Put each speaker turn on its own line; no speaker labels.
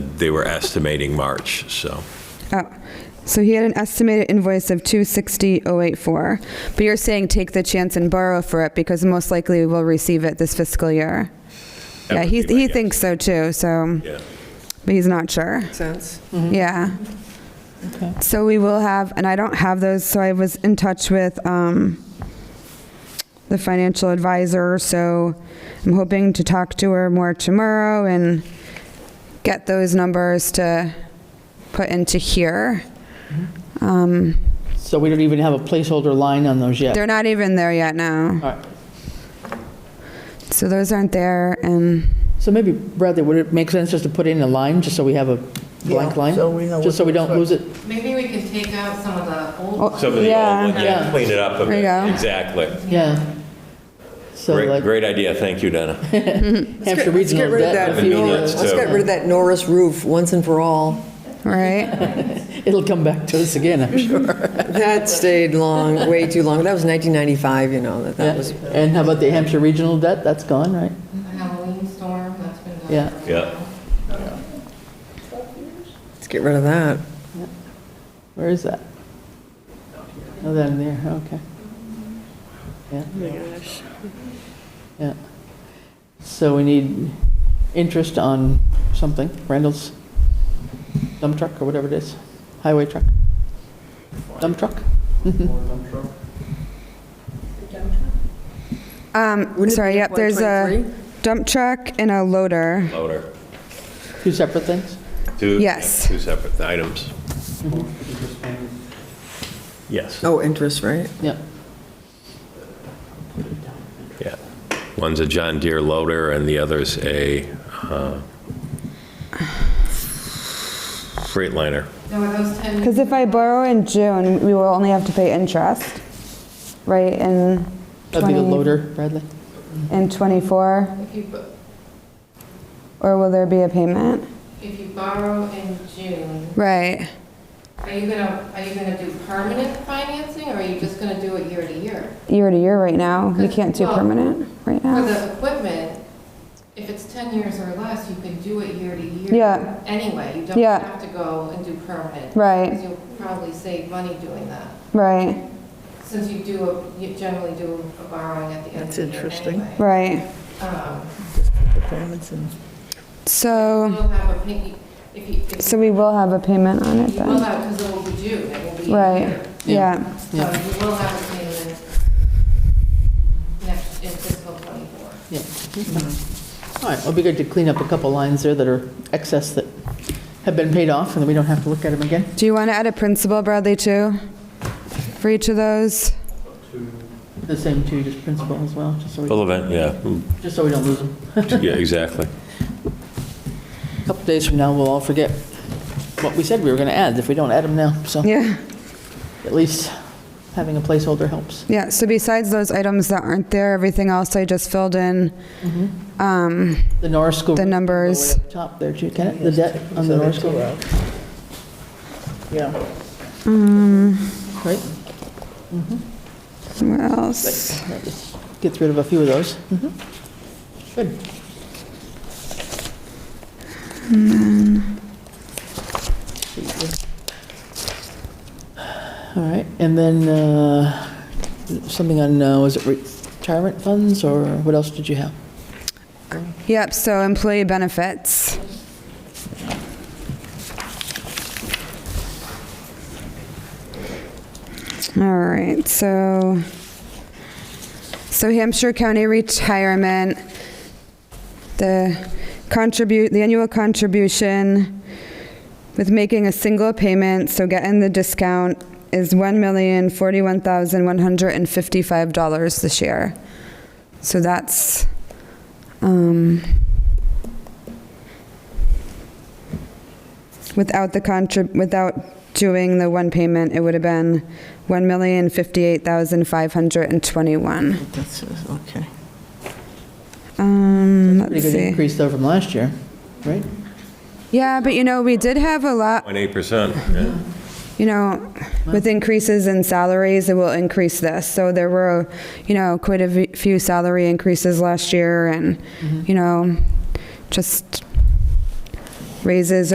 they were estimating March, so.
Oh, so he had an estimated invoice of 260,084, but you're saying take the chance and borrow for it because most likely we'll receive it this fiscal year.
That
Yeah,
would
he,
be my
he
guess.
thinks so too, so,
Yeah.
but he's not sure.
sense.
Yeah. So we will have, and I don't have those, so I was in touch with um, the financial advisor, so I'm hoping to talk to her more tomorrow and get those numbers to put into here.
So we don't even have a placeholder line on those yet.
They're not even there yet now,
All right.
so those aren't there, and
So maybe, Bradley, would it make sense just to put in a line, just so we have a blank
Yeah,
line?
so we know
Just so
what
we
to
don't lose it.
Maybe we can take out some of the old,
Oh,
Some of the
Yeah.
old ones, yeah,
Yeah.
clean it up a
There you
bit.
go.
Exactly.
Yeah. So
Great,
like
great idea, thank you, Donna.
Hampshire
Let's get
Regional
rid of
debt,
that,
if you need
Nor-
Convenience,
let's
too.
get rid of that Norris roof once and for all.
right?
it, it'll come back to us again, I'm sure.
That stayed long, way too long. That was 1995, you know, that that
Yeah.
was,
And how about the Hampshire Regional debt? That's gone, right?
the Halloween storm, that's been done.
Yeah.
for a
Yeah.
while.
let's get rid of that.
Where is that? Oh, that in there, okay. Yeah. Yeah. So we need interest on something, Randall's dump truck or whatever it is, highway truck. Dump truck?
Um,
Wouldn't it
sorry,
be
yep, there's a
123?
dump truck and a loader.
Loader.
Two separate things?
Two-
Yes.
Two separate items. Yes,
Oh, interest, right?
Yeah.
yeah. One's a John Deere loader and the other's a uh, Freightliner.
Now, are those 10?
Because if I borrow in June, we will only have to pay interest, right, in
That'd be
20
the loader, Bradley?
In 24,
If you, bo-
or will there be a payment?
if you borrow in June,
Right.
are you gonna, are you gonna do permanent financing, or are you just gonna do it year to year?
Year to year right now, we can't do
Well-
permanent right
For
now.
the equipment, if it's 10 years or less, you can do it year to year.
Yeah.
Anyway, you don't
Yeah.
have to go and do permanent. Because
Right,
you'll probably save money doing that,
right,
since you do, a- you generally do a borrowing at the end of
That's
the year anyway.
interesting.
right.
Um,
Performance and
So,
You'll have a, piggy- if you, if
so we will have a payment on it
You will
then.
have, because it will be due, it will be.
Right, yeah,
So you will have a payment next, in fiscal '24.
Yeah. All right, it'll be good to clean up a couple lines there that are excess that have been paid off, and then we don't have to look at them again.
do you want to add a principal, Bradley, too? For each of those?
The same two, just principal as well, just so we,
Full event, yeah.
just so we don't lose them.
Yeah, exactly.
A Couple days from now, we'll all forget what we said we were going to add, if we don't add them now. So
Yeah,
at least having a placeholder helps.
yeah, so besides those items that aren't there, everything else I just filled in, um,
The Norris School.
The numbers.
Way up Top there, too, can it, the debt on the Norris School,
Yeah.
Mm.
right?
what else?
Right, just Gets rid of a few of those. Mhm. Good. All right, and then uh, something on, uh, was it retirement funds, or what else did you have?
Yep, so employee benefits. All right, so, so Hampshire County Retirement, the contribute, the annual contribution with making a single payment, so getting the discount, is $1,041,155 this year. So that's um, Without the contra, without doing the one payment, it would have been 1,058,521.
That's, okay.
Um,
Pretty
let's
good
see.
increase though from last year, right?
Yeah, but you know, we did have a lot,
0.8%, yeah.
you know, with increases in salaries, it will increase this. So there were, you know, quite a v- few salary increases
Mm-hmm.
last year and, you know, just raises